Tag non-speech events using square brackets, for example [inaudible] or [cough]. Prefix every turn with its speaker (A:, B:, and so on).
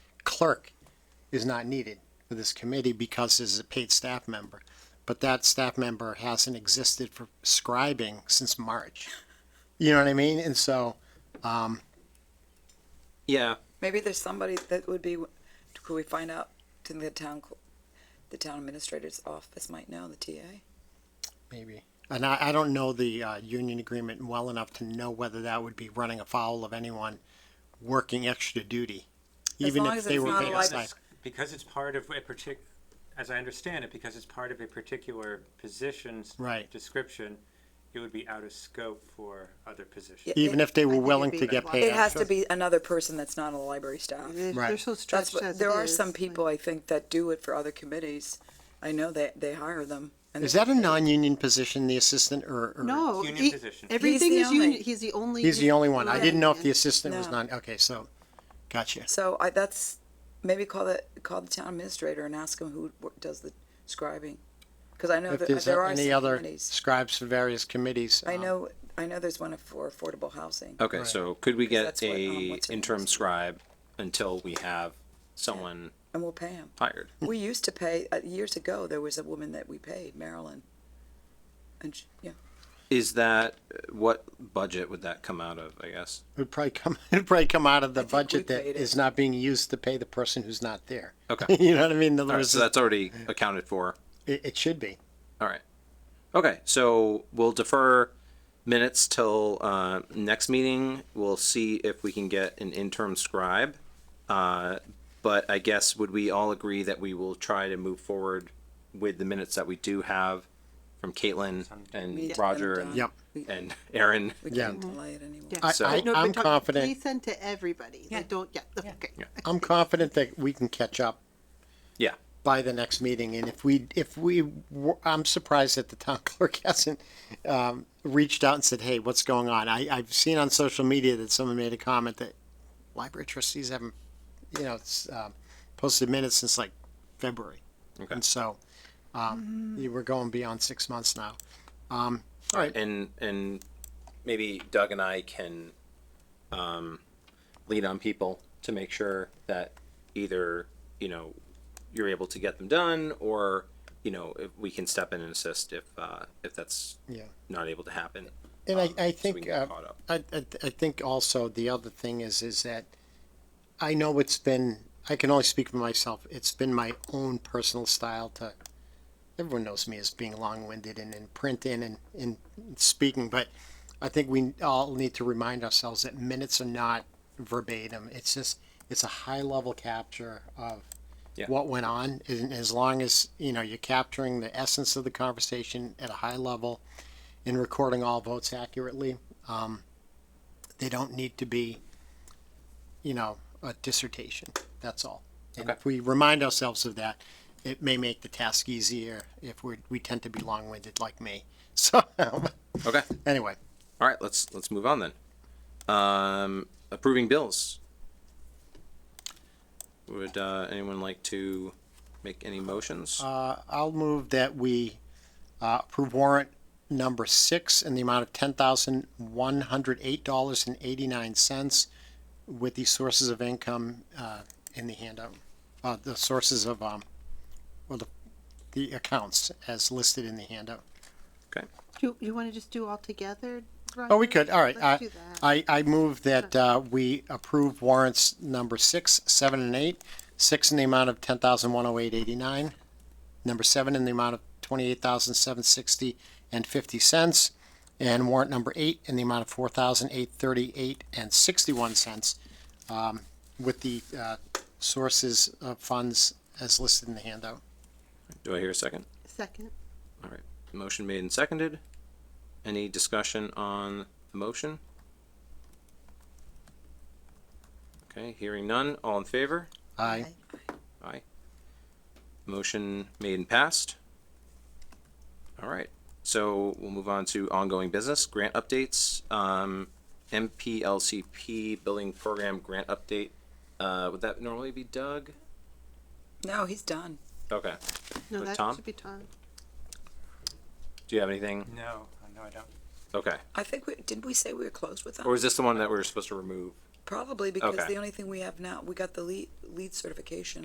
A: clerk is not needed for this committee because it's a paid staff member. But that staff member hasn't existed for scribing since March. You know what I mean? And so, um,
B: Yeah,
C: Maybe there's somebody that would be, could we find out, to the town, cl- the town administrator's office might know, the TA?
A: maybe. And I, I don't know the, uh, union agreement well enough to know whether that would be running afoul of anyone working extra duty.
C: As
A: Even
C: long
A: if
C: as
A: they
C: it's
A: were
C: not
A: paid
C: like-
A: stipend.
B: because it's part of a partic, as I understand it, because it's part of a particular position's
A: Right.
B: description, it would be out of scope for other positions.
C: Yeah.
A: even if they
D: I
A: were
D: think
A: willing
D: it'd
A: to
D: be
A: get
D: like-
A: paid.
C: It has
A: extra.
C: to be another person that's not a library staff.
D: They're,
A: Right.
D: they're so
C: That's
D: stretched
C: what,
D: as it
C: there are
D: is,
C: some
D: like-
C: people, I think, that do it for other committees. I know they, they hire them. and
A: Is
C: they-
A: that a non-union position, the assistant, or? or-
D: No,
B: Union
D: he-
B: position.
D: everything
C: He's
D: is
C: the only-
D: union. He's the only.
A: He's the only one. I didn't know if the
D: Yeah.
A: assistant was
C: No.
A: non, okay, so, gotcha.
C: So I, that's, maybe call the, call the town administrator and ask him who wo- does the scribing. Cause I know
A: If
C: that
A: there's
C: there are
A: any
C: some
A: other
C: committees.
A: scribes for various committees.
C: I
A: um,
C: know, I know there's one for affordable housing.
E: Okay, so could we
C: Because
E: get
C: that's what, um,
E: a
C: what's her name
E: interim
C: is.
E: scribe until we have someone
C: And we'll pay him.
E: hired?
C: We used to pay, uh, years ago, there was a woman that we paid, Marilyn. And she, yeah,
E: Is that, what budget would that come out of, I guess?
A: It would probably come, [laughs] it would probably come out of the
C: I think we
A: budget that
C: paid it.
A: is not being used to pay the person who's not there.
E: Okay.
A: [laughs] You know what I mean? In other
E: All right,
A: words,
E: so that's already accounted for.
A: it, it should be.
E: All right. Okay, so we'll defer minutes till uh, next meeting. We'll see if we can get an interim scribe. Uh, but I guess would we all agree that we will try to move forward with the minutes that we do have from Caitlin and
C: Yeah.
E: Roger and,
A: Yep.
C: we,
E: and Mm-hmm. Aaron?
C: we
A: Yeah.
C: can't delay it anymore.
D: Yeah.
A: I,
E: So-
A: I,
D: No, but
A: I'm
D: don't-
A: confident,
D: Please send to everybody. Like, don't. Yeah. Okay.
A: I'm confident that we can catch up
E: Yeah.
A: by the next meeting. And if we, if we, were- I'm surprised that the town [laughs] clerk hasn't um, reached out and said, hey, what's going on? I, I've seen on social media that someone made a comment that library trustees haven't, you know, it's, um, posted minutes since like February.
E: Okay.
A: And so, um, you- we're going beyond six months now. Um, all right,
E: and and maybe Doug and I can um, lead on people to make sure that either you know you're able to get them done, or you know if we can step in and assist if uh, if that's
A: Yeah.
E: not able to happen.
A: And I,
E: um, so
A: I
E: we
A: think,
E: can get
A: uh,
E: caught up.
A: I, I, I think also the other thing is, is that I know it's been, I can only speak for myself. It's been my own personal style to, everyone knows me as being long-winded and in print and in, in speaking, but I think we all need to remind ourselves that minutes are not verbatim. It's just, it's a high-level capture of
E: Yeah.
A: what went on. And as long as, you know, you're capturing the essence of the conversation at a high level, in recording all votes accurately. Um, they don't need to be, you know, a dissertation. That's all. And
E: Okay.
A: if we remind ourselves of that, it may make the task easier if we we tend to be long winded like me. [laughs] So
E: Okay.
A: anyway,
E: All right. Let's let's move on then. Um, approving bills. Would uh, anyone like to make any motions?
A: uh, I'll move that we uh, approve warrant number six in the amount of ten thousand one hundred eight dollars and eighty nine cents, with the sources of income uh, in the handout, uh, the sources of um, well, the the accounts as listed in the handout.
D: You you want to just do all together? Ryan?
A: Oh, we could. All right.
D: Let's
A: I,
D: do that.
A: I, I move that uh, we approve warrants number six, seven, and eight. Six in the amount of ten thousand one hundred eight eighty nine. Number seven in the amount of twenty-eight thousand seven sixty and fifty cents. And warrant number eight in the amount of four thousand eight thirty-eight and sixty-one cents, um, with the uh, sources of funds as listed in the handout.
E: Do I hear a second?
D: Second.
E: All right, motion made and seconded. Any discussion on the motion? Okay, hearing none, all in favor?
A: Aye.
E: Aye. Motion made and passed. All right, so we'll move on to ongoing business, grant updates. Um, MPLCP Building Program Grant Update, uh, would that normally be Doug?
C: No, he's done.
E: Okay,
D: No,
E: With
D: that
E: Tom?
D: should be Tom.
E: do you have anything?
B: No, no, I don't.
E: Okay,
C: I think we, didn't we say we were closed with them?
E: or is this the one that we were supposed to remove?
C: Probably because
E: Okay.
C: the only thing we have now, we got the lead, lead certification.